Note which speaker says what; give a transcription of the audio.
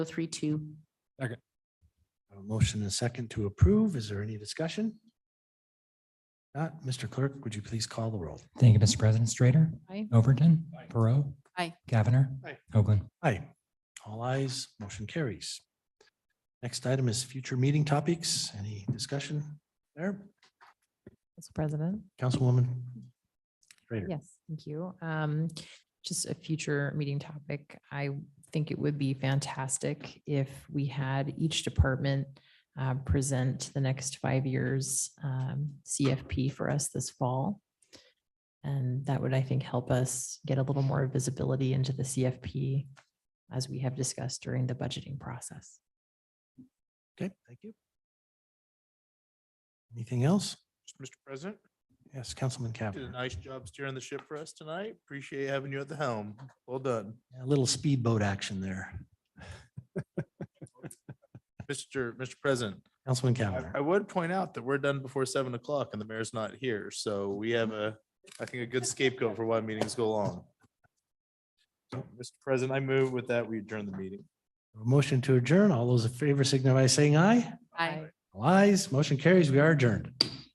Speaker 1: three two.
Speaker 2: A motion and a second to approve. Is there any discussion? Not, Mr. Clerk, would you please call the roll?
Speaker 3: Thank you, Mr. President. Strater.
Speaker 1: Aye.
Speaker 3: Overton.
Speaker 2: Aye.
Speaker 3: Perot.
Speaker 1: Aye.
Speaker 3: Cavanagh.
Speaker 2: Aye.
Speaker 3: Hoagland.
Speaker 2: Aye. All ayes, motion carries. Next item is future meeting topics. Any discussion there?
Speaker 4: Mr. President?
Speaker 2: Councilwoman? Schrader.
Speaker 4: Yes, thank you. Um, Just a future meeting topic. I think it would be fantastic if we had each department uh, present the next five years um, CFP for us this fall. And that would, I think, help us get a little more visibility into the CFP as we have discussed during the budgeting process.
Speaker 2: Okay, thank you. Anything else?
Speaker 5: Mr. President,
Speaker 2: Yes, Councilman
Speaker 5: you did a
Speaker 2: Cavanagh.
Speaker 5: nice job steering the ship for us tonight. Appreciate having you at the helm. Well done.
Speaker 2: A little speedboat action there.
Speaker 5: Mr. Mr. President,
Speaker 2: Councilman
Speaker 5: I,
Speaker 2: Cavanagh.
Speaker 5: I would point out that we're done before seven o'clock and the mayor's not here. So we have a, I think, a good scapegoat for why meetings go long. So, Mr. President, I move with that, we adjourn the meeting.
Speaker 2: A Motion to adjourn. All those in favor signify by saying aye. All ayes, motion carries. We are adjourned.